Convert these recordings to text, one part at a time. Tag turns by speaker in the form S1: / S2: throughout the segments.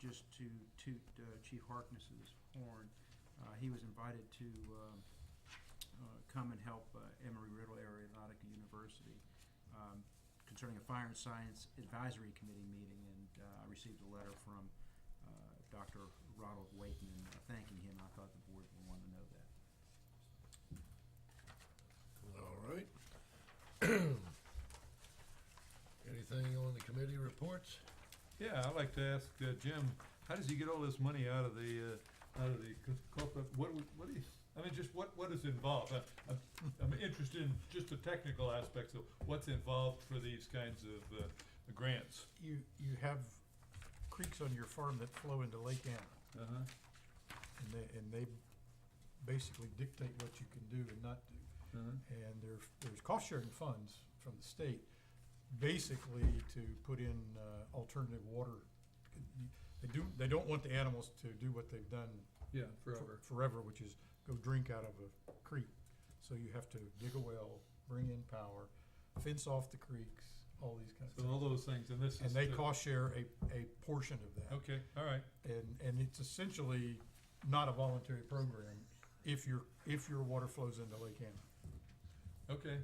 S1: just to toot uh, Chief Harkness's horn, uh, he was invited to, um, uh, come and help uh, Emory Riddle Aeronautica University um, concerning a fire and science advisory committee meeting, and uh, I received a letter from uh, Dr. Ronald Wakeman uh, thanking him. I thought the board would want to know that.
S2: All right. Anything on the committee reports?
S3: Yeah, I'd like to ask uh, Jim, how does he get all this money out of the, uh, out of the co- corporate, what, would- what do you, I mean, just what, what is involved? I- I'm, I'm interested in just the technical aspects of what's involved for these kinds of, uh, grants.
S4: You, you have creeks on your farm that flow into Lake Anna,
S3: Uh-huh.
S4: and they, and they basically dictate what you can do and not do.
S3: uh-huh.
S4: And there's, there's cost sharing funds from the state, basically to put in, uh, alternative water. They do, they don't want the animals to do what they've done
S3: Yeah,
S4: for- Forever, which is go drink out of a creek. So you have to dig a well, bring in power, fence off the creeks, all these kinds of
S3: So all
S4: things.
S3: those things, and this is.
S4: And they
S3: the-
S4: cost share a, a portion of that.
S3: Okay, all right,
S4: And, and it's essentially not a voluntary program if your, if your water flows into Lake Anna.
S3: okay.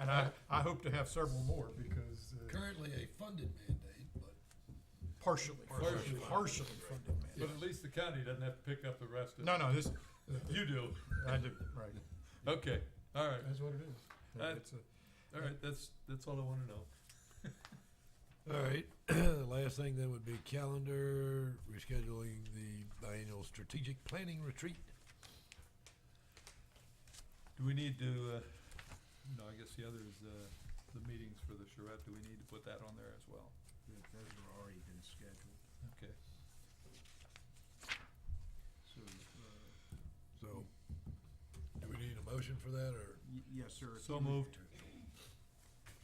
S4: And I, I hope to have several more because uh,
S2: Currently a funded mandate, but
S4: partially,
S3: Partially.
S4: partially funded, man.
S3: But at least the county doesn't have to pick up the rest of it.
S4: No, no, this,
S3: You do,
S4: I do, right.
S3: okay, all right,
S4: That's what it is.
S3: Uh,
S4: It's a-
S3: all right, that's, that's all I wanna know.
S2: All right, the last thing then would be calendar, rescheduling the biennial strategic planning retreat.
S3: Do we need to, uh, no, I guess the other is, uh, the meetings for the charrette, do we need to put that on there as well?
S1: Th- Those have already been scheduled.
S3: Okay.
S1: So, uh,
S2: So, do we need a motion for that, or
S1: y- yes, sir. if
S3: So
S1: you-
S3: moved.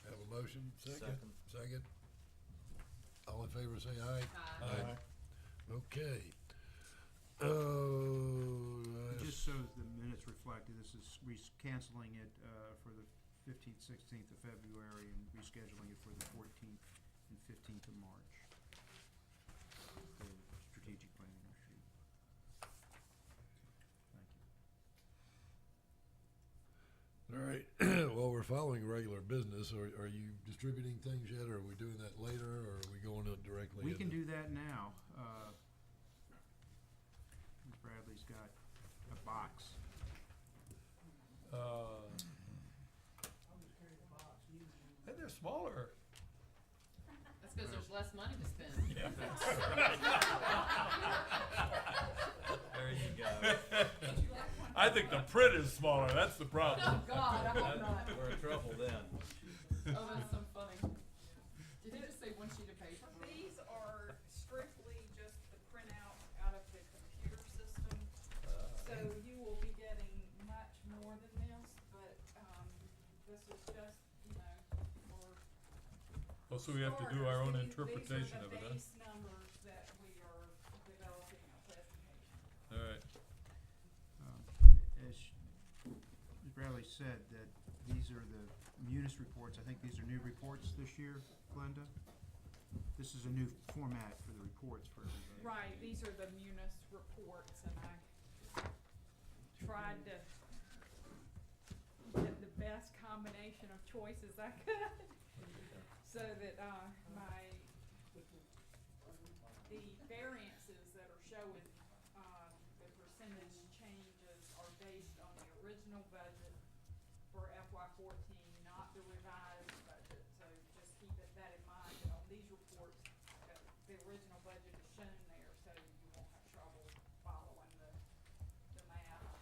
S2: have a motion? Second. Second. All in favor, say aye.
S3: Aye.
S2: Okay. Oh,
S1: Just so the minutes reflected, this is res- canceling it uh, for the 15th, 16th of February and rescheduling it for the 14th and 15th of March. The strategic planning retreat. Thank you.
S2: All right, well, we're following regular business, are, are you distributing things yet, or are we doing that later, or are we going to directly?
S1: We can
S2: into-
S1: do that now. uh, Bradley's got a box.
S3: Uh. And they're smaller.
S5: That's because there's less money to spend.
S6: There you go.
S3: I think the print is smaller, that's the problem.
S5: Oh, God, I hope not.
S6: We're in trouble then.
S5: Oh, that's so funny. Did he just say one sheet of paper?
S7: These are strictly just the printout out of the computer system, so you will be getting much more than this, but, um, this is just, you know, for.
S3: Well, Oh, so we have to do our own interpretation of it,
S7: These are the
S3: huh?
S7: base numbers that we are developing a presentation.
S3: All right,
S1: Um, As sh- as Bradley said, that these are the munis reports, I think these are new reports this year, Glenda? This is a new format for the reports for everybody.
S7: Right, these are the munis reports, and I tried to get the best combination of choices I could, so that, uh, my, the variances that are showing, uh, the percentage changes are based on the original budget for FY fourteen, not the revised budget, so just keep it that in mind, that on these reports, that the original budget is shown there, so you won't have trouble following the, the math.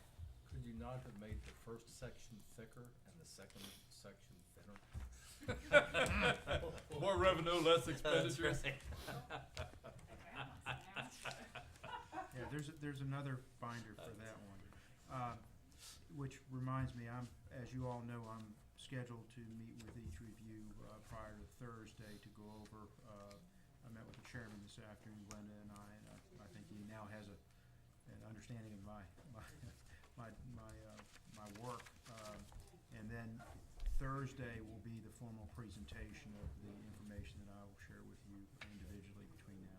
S6: Could you not have made the first section thicker and the second section thinner?
S3: more revenue, less expenditure.
S7: They balance now, so.
S1: Yeah, there's, a- there's another binder for that one. Uh, Which reminds me, I'm, as you all know, I'm scheduled to meet with each review uh, prior to Thursday to go over. uh, I met with the chairman this afternoon, Glenda and I, and I- I think he now has a, an understanding of my, my, my, my, uh, my work. Um, And then Thursday will be the formal presentation of the information that I will share with you individually